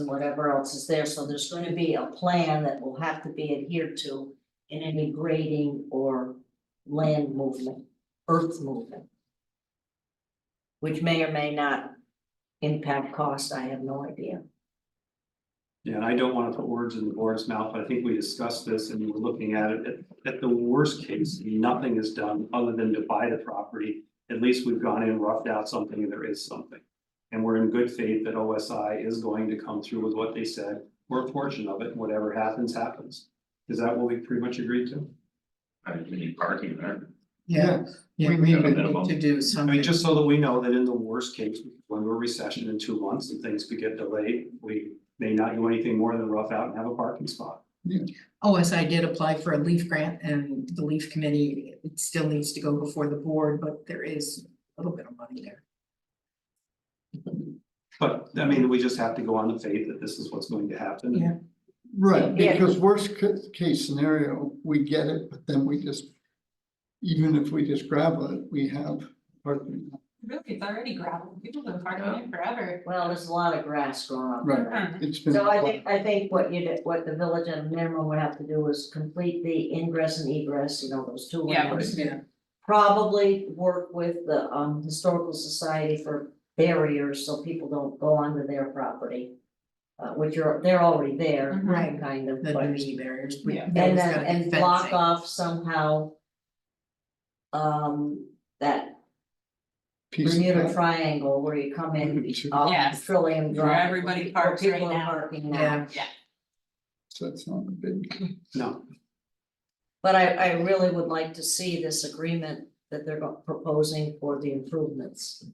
and whatever else is there, so there's gonna be a plan that will have to be adhered to in any grading or land movement, earth movement. Which may or may not impact cost, I have no idea. Yeah, and I don't wanna put words in the board's mouth, but I think we discussed this and we were looking at it, at, at the worst case, nothing is done other than to buy the property. At least we've gone in, roughed out something, and there is something. And we're in good faith that OSI is going to come through with what they said, or a portion of it, whatever happens, happens. Is that what we pretty much agreed to? I mean, we need parking there. Yeah, we At may a need minimum. to do I something. mean, just so that we know that in the worst case, when we're recession in two months and things could get delayed, we may not do anything more than rough out and have a parking spot. OSI Oh, did apply for a leaf grant and the leaf committee, it still needs to go before the board, but there is a little bit of money there. But I mean, we just have to go on the faith that this is what's going to happen. Yeah. Right, Yeah. because worst ca- case scenario, we get it, but then we just. Even if we just gravel it, we have, parking. Really, it's already gravel, people have been parking Oh. it forever. Well, there's a lot of grass growing up. right, Mhm. it's been. So I think, I think what you, did- what the village at a minimum would have to do is complete the ingress and egress, you know, those two Yeah. lanes. Yeah. Probably work with the um historical society for barriers, so people don't go onto their property. Uh, which are, they're already there, Right, Mm-hmm. kind of, the but, nudity barriers. we- Yeah. there's and gotta then, be and block fencing. off somehow. Um, that piece of Bermuda that. Triangle where you come in off Yes. Trillium Where Drive. everybody people- parks right People are now. parking now. Yeah, So it's not a big, No, But I, I really would like to see this agreement that they're go- proposing for the improvements.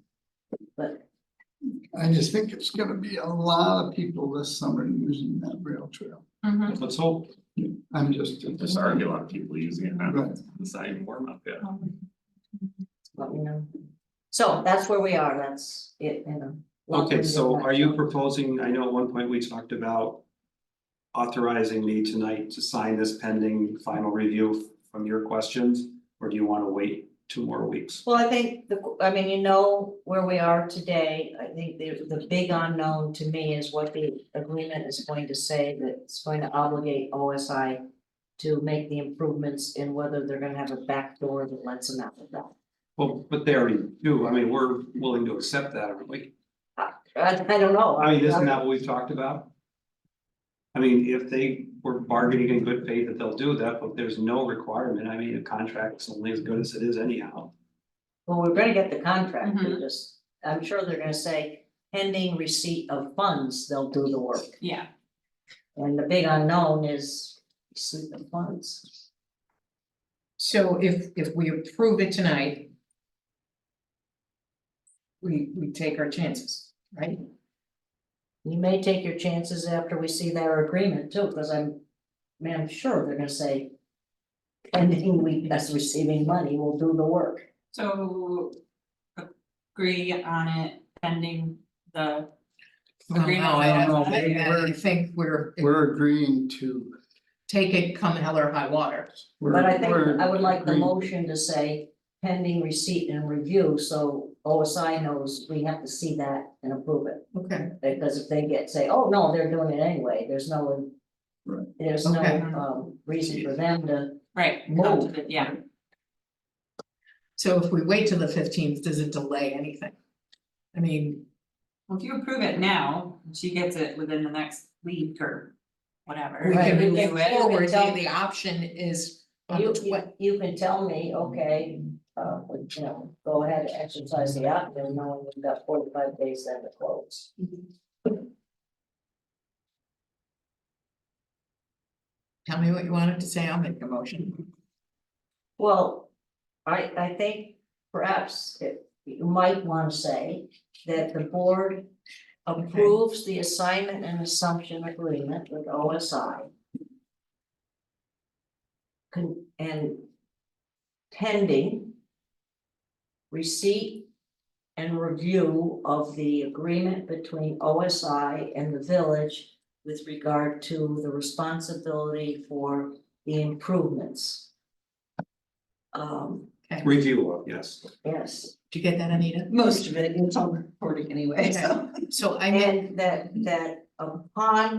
But, I just think it's gonna be a lot of people this summer using that rail trail. Mm-hmm. Mhm. let's hope. I'm just. There's already a lot of people using it now. Right. It's not even warm up yet. but you know. So that's where we are, that's it, you know. Okay, so are you proposing? proposing, I know at one point we talked about authorizing me tonight to sign this pending final review from your questions? Or do you want to wait two more weeks? Well, I think the, I mean, you know where we are today, I think the, the big unknown to me is what the agreement is going to say that's going to obligate OSI. To make the improvements and whether they're gonna have a back door that lets them out of that. Well, but they already do. I mean, we're willing to accept that, aren't we? I, I don't know. I mean, isn't that what we've talked about? I mean, if they were bargaining in good faith that they'll do that, but there's no requirement. I mean, a contract's only as good as it is anyhow. Well, we're gonna get the contract, they just, I'm sure they're gonna say pending receipt of funds, they'll do the work. Yeah, And the big unknown is receipt of funds. so if, if we approve it tonight, we, we take our chances, right? You may take your chances after we see their agreement too, because I'm, man, I'm sure they're gonna say pending we, us receiving money, we'll do the work. so agree on it pending the, No, Agreement. no, I No, don't, we- I- I we're- think we're, We're agreeing to. take it come hell or high water. we're- But I think we're I would like the agreeing. motion to say pending receipt and review, so OSI knows we have to see that and approve it. Okay, Because if they get, say, oh, no, they're doing it anyway, there's no. Right. There's no Okay. um reason for them to, right, come to Move. the, yeah, so if we wait till the fifteenth, does it delay anything? I mean, well, if you approve it now, she gets it within the next week or whatever. We can Right. move Review it. forward, the, the option is on you the you twen- you can tell me, okay, uh, you know, go ahead, and exercise the option, knowing we've got forty five days then to close. tell me what you wanted to say, I'll make a motion. Well, I I think perhaps it, you might wanna say that the board approves the assignment and assumption agreement with OSI. Con- and pending receipt and review of the agreement between OSI and the village with regard to the responsibility for the improvements. Um, Review of, yes. yes, Did you get that, Anita? Most of it, it's all recording anyway, so. So I mean, and that, that upon